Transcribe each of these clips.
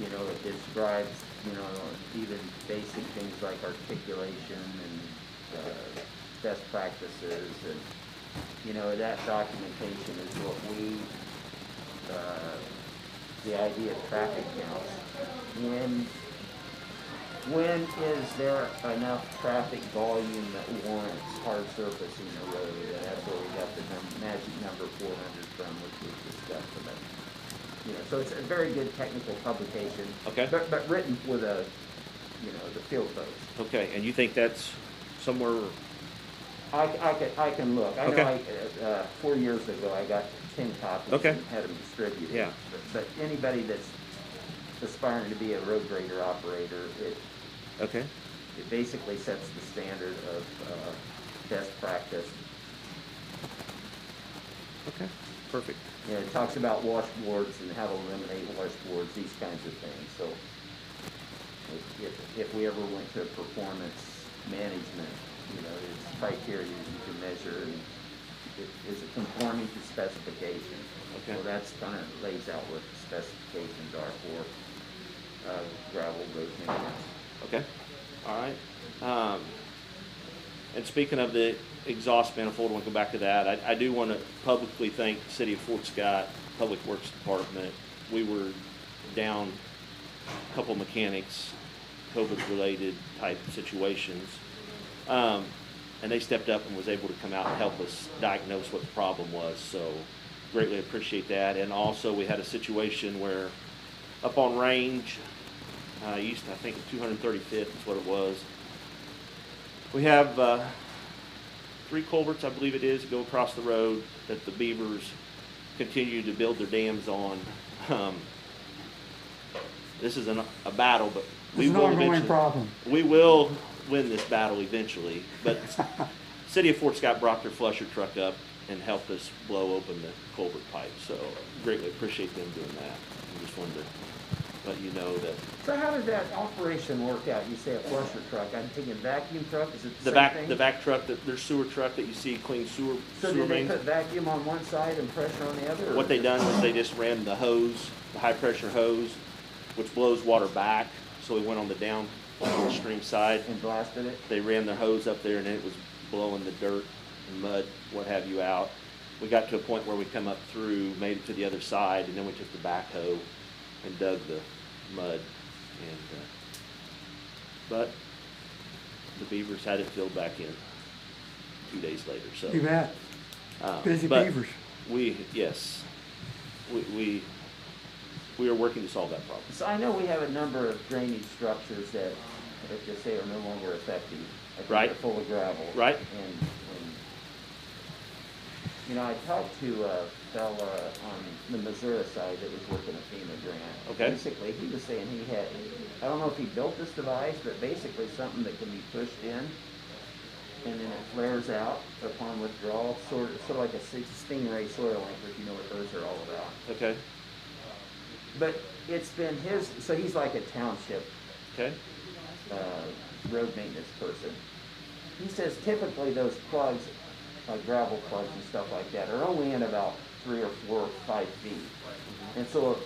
you know, it describes, you know, even basic things like articulation and, uh, best practices and, you know, that documentation is what we, uh, the idea of traffic counts. When, when is there enough traffic volume that warrants hard surfacing a road? And that's where we got the num- magic number four hundred from, which we discussed about. You know, so it's a very good technical publication. Okay. But, but written with a, you know, the field post. Okay, and you think that's somewhere, I, I can, I can look. I know, Okay. I, uh, four years ago, I got ten copies. Okay. And had them distributed. Yeah. But but anybody that's aspiring to be a road grader operator, it, okay, it basically sets the standard of, uh, best practice. okay, perfect. You know, it talks about washboards and how to eliminate washboards, these kinds of things, so. if- If, if we ever went to performance management, you know, there's criteria you can measure and it- is it conforming to specification? Okay. Well, that's kinda lays out what the specifications are for, uh, gravel road maintenance. Okay, all right. Um, and speaking of the exhaust manifold, we'll go back to that. I, I do want to publicly thank the City of Fort Scott Public Works Department. We were down a couple mechanics, COVID-related type situations. Um, and they stepped up and was able to come out and help us diagnose what the problem was, so greatly appreciate that. And also, we had a situation where up on range, uh, east, I think 235th is what it was. We have uh, three culverts, I believe it is, go across the road that the beavers continue to build their dams on. Um, this is an, a battle, but we It's an will ongoing eventually. problem. We will win this battle eventually, but City of Fort Scott brought their flusher truck up and helped us blow open the culvert pipe, so greatly appreciate them doing that. I just wanted to let you know that So how did that operation work out? You say a flusher truck, I'm thinking vacuum truck, is it the the same back, thing? the back truck, that their sewer truck that you see clean sewer, So sewer did they mains. put vacuum on one side and pressure on the other? or- What they done was they just ran the hose, the high pressure hose, which blows water back, so we went on the downstream side. And blasted it? they ran their hose up there and it was blowing the dirt and mud, what have you, out. We got to a point where we come up through, made it to the other side, and then we took the backhoe and dug the mud. And uh, but the beavers had it filled back in two days later. So You bet. um, Busy but beavers. We yes, we we we are working to solve that problem. So I know we have a number of drainage structures that, let's just say, are no longer effective. I think Right. They're full of gravel. Right. And, and, you know, I talked to a fella on the Missouri side that was working a FEMA grant. Okay. Basically, he was saying he had, I don't know if he built this device, but basically something that can be pushed in and then it flares out upon withdrawal, sort of, sort of like a stingray soil anchor, if you know what those are all about. Okay. But it's been his, so he's like a township Okay. uh, road maintenance person. He says typically those plugs, like gravel plugs and stuff like that, are only in about three or four or five feet. And so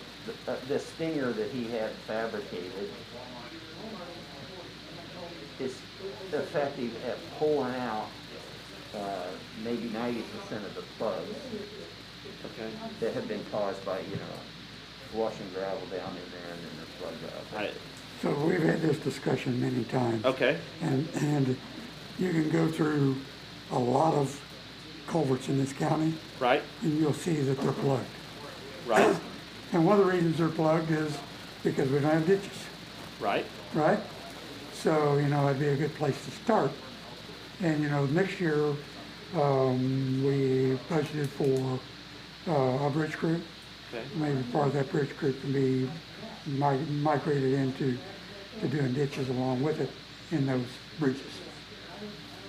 uh, this stinger that he had fabricated is effective at pulling out uh, maybe 90% of the plugs Okay. that have been caused by, you know, washing gravel down in there and then the flood out. I, So we've had this discussion many times. okay. And, and you can go through a lot of culverts in this county Right. and you'll see that they're plugged. Right. And one of the reasons they're plugged is because we don't have ditches. Right. right? So, you know, it'd be a good place to start. And, you know, next year, um, we budgeted for, uh, a bridge crew. Okay. Maybe part of that bridge crew can be mi- migrated into, to doing ditches along with it in those bridges.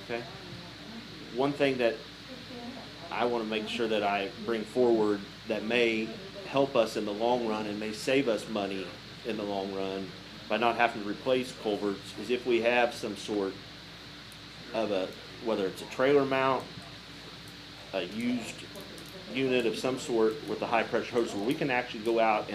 Okay. One thing that I want to make sure that I bring forward that may help us in the long run and may save us money in the long run by not having to replace culverts is if we have some sort of a, whether it's a trailer mount, a used unit of some sort with a high pressure hose where we can actually go out